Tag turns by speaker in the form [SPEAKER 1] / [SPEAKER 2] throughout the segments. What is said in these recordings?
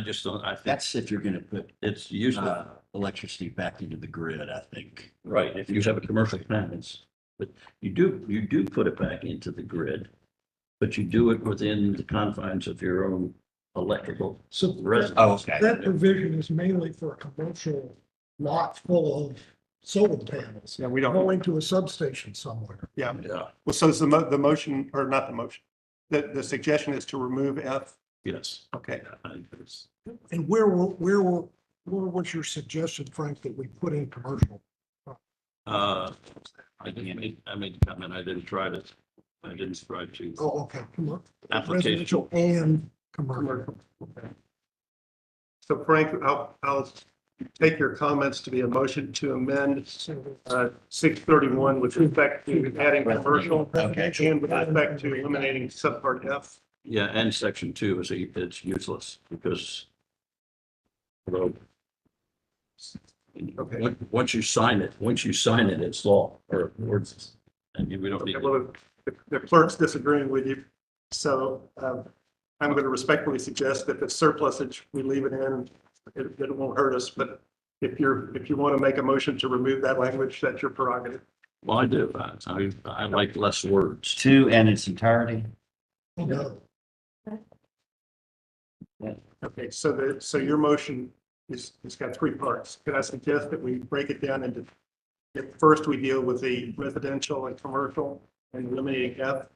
[SPEAKER 1] I just don't, I think
[SPEAKER 2] That's if you're gonna put,
[SPEAKER 1] it's useless.
[SPEAKER 2] uh, electricity back into the grid, I think.
[SPEAKER 1] Right, if you have a commercial plant, it's, but you do, you do put it back into the grid. But you do it within the confines of your own electrical
[SPEAKER 3] So that-
[SPEAKER 1] residence.
[SPEAKER 2] Oh, okay.
[SPEAKER 3] that provision is mainly for a commercial lot full of solar panels
[SPEAKER 4] Yeah, we don't,
[SPEAKER 3] going to a substation somewhere.
[SPEAKER 4] yeah.
[SPEAKER 1] Yeah,
[SPEAKER 4] Well, so is the mo- the motion, or not the motion, the, the suggestion is to remove F?
[SPEAKER 1] yes.
[SPEAKER 4] Okay,
[SPEAKER 1] Yeah, I think it's-
[SPEAKER 3] And where, were- where, were- where was your suggestion, Frank, that we put in commercial?
[SPEAKER 1] Uh, I didn't, I made the comment, I didn't try to, I didn't try to.
[SPEAKER 3] Oh, okay, come on.
[SPEAKER 1] Application,
[SPEAKER 3] Residential and commercial.
[SPEAKER 4] so Frank, I'll, I'll take your comments to be a motion to amend uh, six thirty-one with respect to adding commercial
[SPEAKER 2] Okay.
[SPEAKER 4] and with respect to eliminating subpart F.
[SPEAKER 1] yeah, and section two is, a- it's useless because. although-
[SPEAKER 4] Okay.
[SPEAKER 1] Once- Once you sign it, once you sign it, it's law or words. And we don't need.
[SPEAKER 4] Okay, well, the- the clerk's disagreeing with you, so um, I'm going to respectfully suggest that the surplusage, we leave it in. It, it won't hurt us, but if you're, if you want to make a motion to remove that language, that's your prerogative.
[SPEAKER 1] Well, I do. I, I- I like less words.
[SPEAKER 2] Two and its entirety.
[SPEAKER 3] Oh, No,
[SPEAKER 4] Okay, so the, so your motion is, it's got three parts. Could I suggest that we break it down into, if first we deal with the residential and commercial and eliminating F?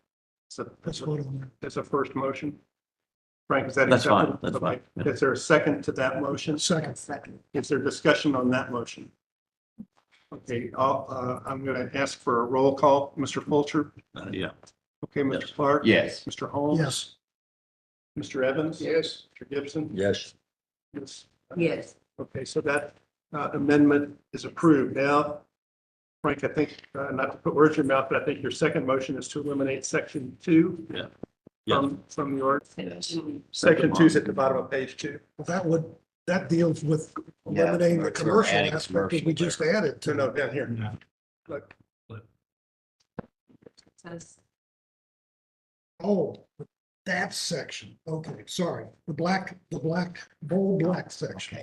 [SPEAKER 4] So
[SPEAKER 3] that's what I'm.
[SPEAKER 4] that's a first motion. Frank, is that
[SPEAKER 1] That's fine,
[SPEAKER 4] acceptable?
[SPEAKER 1] that's fine,
[SPEAKER 4] Okay.
[SPEAKER 1] yeah.
[SPEAKER 4] Is there a second to that motion?
[SPEAKER 3] Second,
[SPEAKER 4] Is there discussion on that motion? Okay, I'll, uh, I'm going to ask for a roll call. Mr. Fulcher?
[SPEAKER 1] Uh, Yeah.
[SPEAKER 4] Okay,
[SPEAKER 1] Yes.
[SPEAKER 4] Mr. Clark?
[SPEAKER 2] Yes.
[SPEAKER 4] Mr. Holmes?
[SPEAKER 3] yes,
[SPEAKER 4] Mr. Evans? Yes. Mr. Gibson?
[SPEAKER 1] Yes.
[SPEAKER 4] Yes.
[SPEAKER 5] Yes,
[SPEAKER 4] Okay, so that uh, amendment is approved. Now, Frank, I think, uh, not to put words in your mouth, but I think your second motion is to eliminate section two.
[SPEAKER 1] Yeah.
[SPEAKER 4] From, from your,
[SPEAKER 2] Yes.
[SPEAKER 4] section two is at the bottom of page two.
[SPEAKER 3] Well, that would, that deals with
[SPEAKER 2] Yeah, we're-
[SPEAKER 3] eliminating the
[SPEAKER 2] we're
[SPEAKER 3] commercial
[SPEAKER 2] adding
[SPEAKER 3] aspect that
[SPEAKER 2] commercial
[SPEAKER 3] we just added
[SPEAKER 4] No,
[SPEAKER 3] to.
[SPEAKER 4] no, down here. Look,
[SPEAKER 5] says,
[SPEAKER 3] Oh, that section, okay, sorry, the black, the black, bold black section.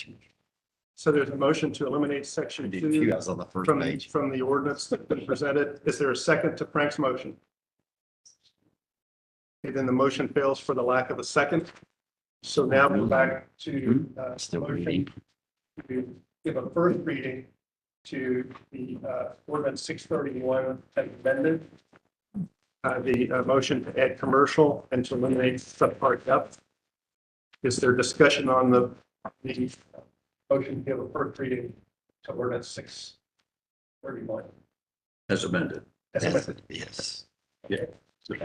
[SPEAKER 2] Okay.
[SPEAKER 4] so there's a motion to eliminate section
[SPEAKER 2] I did
[SPEAKER 4] two.
[SPEAKER 2] two. I was on the first
[SPEAKER 4] from, the
[SPEAKER 2] page.
[SPEAKER 4] from the ordinance that's been presented. Is there a second to Frank's motion? Okay, Then the motion fails for the lack of a second. So now we're back to uh,
[SPEAKER 2] Still
[SPEAKER 4] motion
[SPEAKER 2] reading.
[SPEAKER 4] to give a first reading to the uh, ordinance six thirty-one amended. Uh, The uh, motion to add commercial and to eliminate subpart F. Is there discussion on the, the motion to give a first reading to ordinance six thirty-one?
[SPEAKER 1] As amended.
[SPEAKER 4] I
[SPEAKER 2] Yes.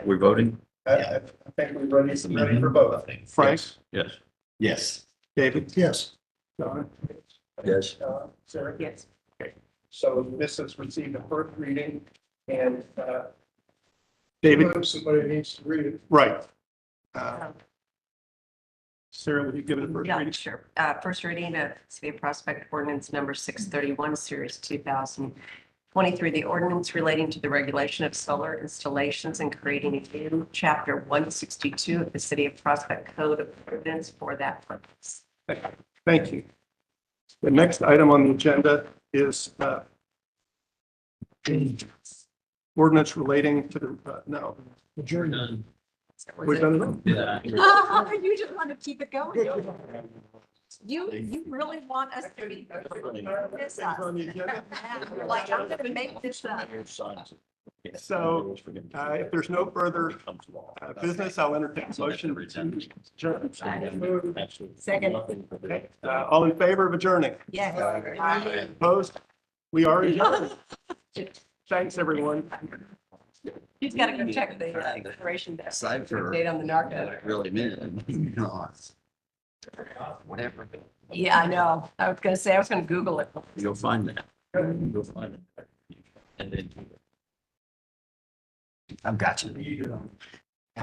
[SPEAKER 1] We're voting?
[SPEAKER 4] I think we're ready, ready for both. Frank,
[SPEAKER 2] Yes.
[SPEAKER 1] Yes.
[SPEAKER 2] Yes.
[SPEAKER 4] David,
[SPEAKER 3] Yes,
[SPEAKER 4] John,
[SPEAKER 1] Yes.
[SPEAKER 4] uh, Sarah.
[SPEAKER 5] yes,
[SPEAKER 4] So this has received a first reading and, uh. David. Somebody needs to read it. Right. Uh,
[SPEAKER 5] Um,
[SPEAKER 4] Sarah, would you give it a first
[SPEAKER 5] yeah,
[SPEAKER 4] reading?
[SPEAKER 5] sure. Uh, first reading of City of Prospect Ordinance Number six thirty-one, Series two thousand twenty-three, the ordinance relating to the regulation of solar installations and creating a new chapter one sixty-two of the City of Prospect Code of Ordinance for that purpose.
[SPEAKER 4] Thank you. The next item on the agenda is, uh, the ordinance relating to the, uh, no,
[SPEAKER 3] adjourned.
[SPEAKER 5] So was
[SPEAKER 4] we've
[SPEAKER 5] it-
[SPEAKER 4] done it.
[SPEAKER 1] Yeah.
[SPEAKER 5] You just want to keep it going. don't you? You, you really want us to be. This us. Like, I'm gonna make this up.
[SPEAKER 4] So, Uh, if there's no further uh, business, I'll entertain a motion to adjourn.
[SPEAKER 5] Second.
[SPEAKER 4] Okay, uh, all in favor of adjourning?
[SPEAKER 5] Yes.
[SPEAKER 4] Opposed? We are adjourned. Thanks, everyone.
[SPEAKER 5] He's got to go check the uh, expiration date.
[SPEAKER 2] Aside for
[SPEAKER 5] Date on the narco.
[SPEAKER 2] really minute. Whatever.
[SPEAKER 5] Yeah, I know. I was gonna say, I was gonna Google it.
[SPEAKER 1] You'll find that. You'll find it. And then.
[SPEAKER 2] I've got you.